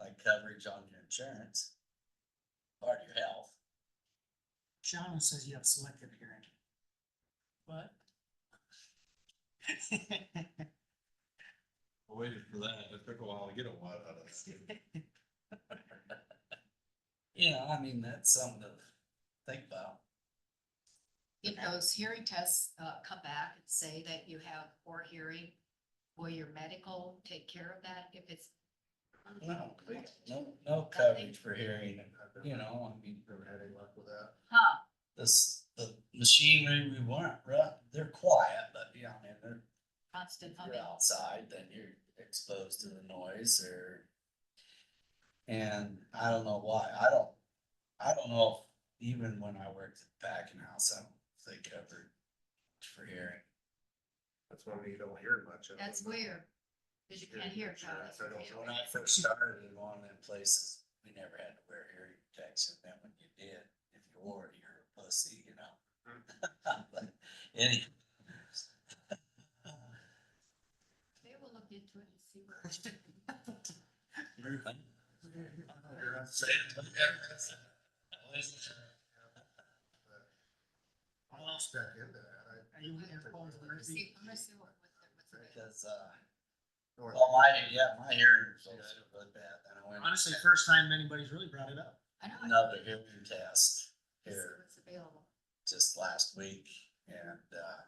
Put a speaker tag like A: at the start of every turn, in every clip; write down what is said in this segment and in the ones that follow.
A: had coverage on your insurance. Part of your health.
B: Shauna says you have selective hearing. What?
C: I waited for that. It took a while to get a lot out of this.
A: Yeah, I mean, that's something to think about.
D: If those hearing tests uh come back and say that you have poor hearing, will your medical take care of that if it's?
A: No,
B: Mm-hmm.
A: no, no coverage for hearing, you know, I mean,
C: Never had any luck with that.
D: Huh,
A: this, the machinery we want, right? They're quiet, but yeah, I mean, they're
D: constant
A: you're
D: humming.
A: outside, then you're exposed to the noise or. And I don't know why, I don't, I don't know if even when I worked at Packing House, I don't think ever for hearing.
C: That's why you don't hear much of it.
D: That's weird. Cause you can't hear.
C: Sure, I don't know.
A: When I first started in one of them places, we never had to wear hearing protection, then when you did, if you wore it, you're a pussy, you know? But Any.
D: They will look into it and see where.
C: I lost back into that. I-
B: Are you in there, Paul Murphy?
D: See, I'm gonna see what- what's- what's available.
A: Because, uh.
C: North-
A: Well, my, yeah, my hearing results are really bad, and I went.
B: Honestly, first time anybody's really brought it up.
D: I know. I
A: Another
D: can
A: hearing test
D: see
A: here
D: What's available.
A: just last week, and, uh.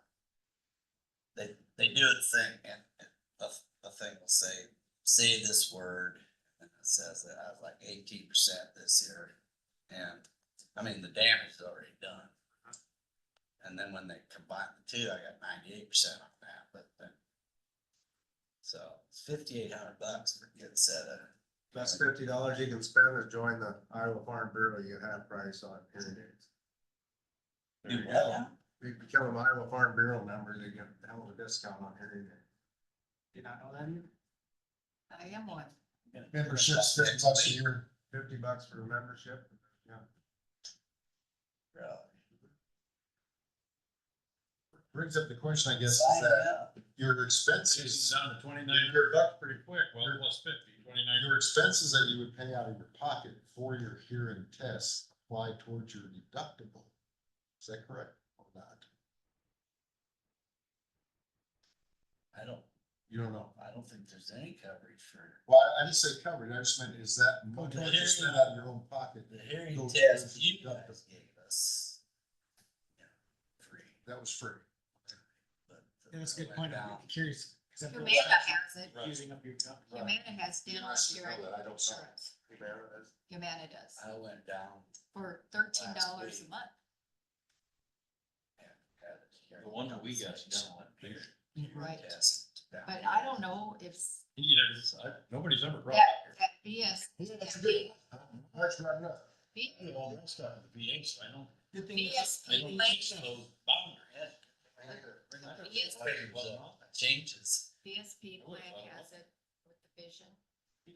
A: They, they do a thing, and, and a, a thing will say, say this word, and it says that I was like eighteen percent this year. And, I mean, the damage is already done. And then when they combine the two, I got ninety-eight percent on that, but then. So, it's fifty-eight hundred bucks for a good set of.
C: Best fifty dollars you can spend is join the Iowa Farm Bureau. You get half price on hearing aids.
A: Do
C: you
A: well.
C: go. If you become an Iowa Farm Bureau member, you get a hell of a discount on hearing aids.
B: Did not know that either.
D: I am one.
C: Membership's fifty bucks a year. Fifty bucks for a membership. Yeah.
A: Really?
C: Brings up the question, I guess,
A: Sign up.
C: your expenses. Down to twenty-nine. Your buck pretty quick, well, it was fifty, twenty-nine. Your expenses that you would pay out of your pocket for your hearing test apply towards your deductible. Is that correct or not?
A: I don't,
C: You don't know.
A: I don't think there's any coverage for
C: Well, I- I didn't say covered, I just meant, is that money
A: Okay.
C: that you spend out of your own pocket?
A: the hearing
C: Those
A: test
C: are
A: you
C: deductible.
A: guys gave us. you know, Free,
C: That was free.
A: but. the-
B: That's a good point. I'm
A: Now,
B: curious. 'cause I've
D: Humana
B: noticed that
D: has it.
C: Right.
B: Using up your time.
D: Humana has dental
C: I should know
D: hearing
C: that, I don't know.
D: insurance. Humana does
A: I went down
D: for thirteen dollars a
A: week.
D: month.
A: and had a hearing.
E: The one that we got,
A: test,
E: no,
A: hearing
D: Right.
A: test down
D: But
A: here.
D: I don't know if s-
E: You know, it's- I- nobody's ever brought
D: that,
E: it
D: that BS.
C: That's good. That's right enough.
D: B-
E: here. All that stuff, the VAs, I don't,
B: Good thing it's-
E: I
D: BSP
E: don't
D: link,
E: think those boundaries.
A: Yeah.
D: Yes.
A: Changes.
D: BSP
E: I would
D: plan
E: follow
D: has it with the vision,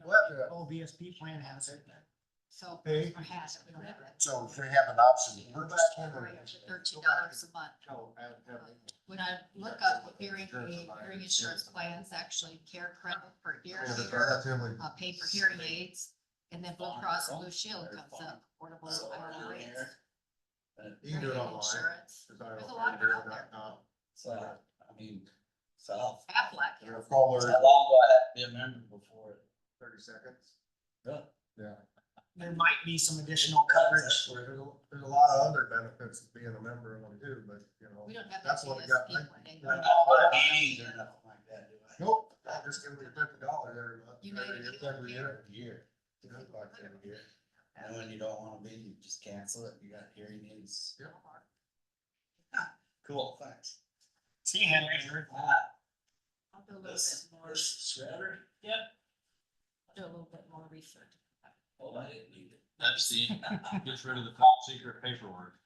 C: What the-
B: Oh, BSP plan has it.
D: so.
C: Hey,
D: Or has it, we don't have it.
C: so if we have an option. to purchase one or-
D: Thirteen dollars a month.
C: No, I don't have it.
D: When I look up hearing, hearing insurance plans, actually care credit for
C: We
D: ear
C: have a
D: care,
C: relatively
D: uh, pay for hearing aids. And then Blue Cross and Blue Shield comes up, portable
A: So,
D: Iowa
A: down
D: rates.
A: here. But,
C: You can do it
D: hearing
C: online.
D: insurance.
C: It's not
D: There's a
C: on
D: lot of it out there.
C: Fairbureau.com.
A: So, I mean, so I'll,
D: Aflac
C: You're
D: has
C: a
D: it.
C: caller.
A: how long will I have to be a member before? it-
C: Thirty seconds.
A: Really?
C: Yeah.
B: There might be some additional coverage.
C: There's, a- there's a lot of other benefits of being a member of them too, but you know.
D: We don't have that
C: That's what I got.
D: BSP plan
A: I
D: anymore.
A: don't know about meetings or nothing like that, do I?
C: Nope, I'm just gonna be fifty dollars every month.
D: United
C: every- Every year.
A: Year.
C: It's like every year.
A: And when you don't wanna be, you just cancel it, you got hearing aids. Cool, thanks.
B: See Henry. you're-
A: Ah,
D: I'll do a little bit
A: This,
D: more,
A: this shredder,
D: do a little bit more research.
A: oh, I didn't need it.
E: That's the, gets rid of the top secret paperwork.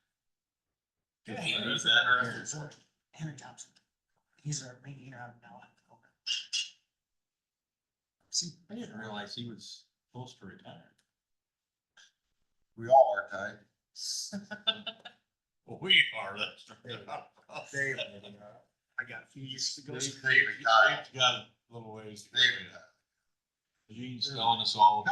B: Good.
E: Is that or-
B: Henry Thompson. He's our main here out of now.
E: See, I didn't realize he was close to retire.
C: We all are tight.
E: We are, that's.
C: Dave,
B: I got a few years to go.
C: David got it.
E: Got a little ways. to go
C: David
E: yet.
C: got it.
E: Gene's telling us all about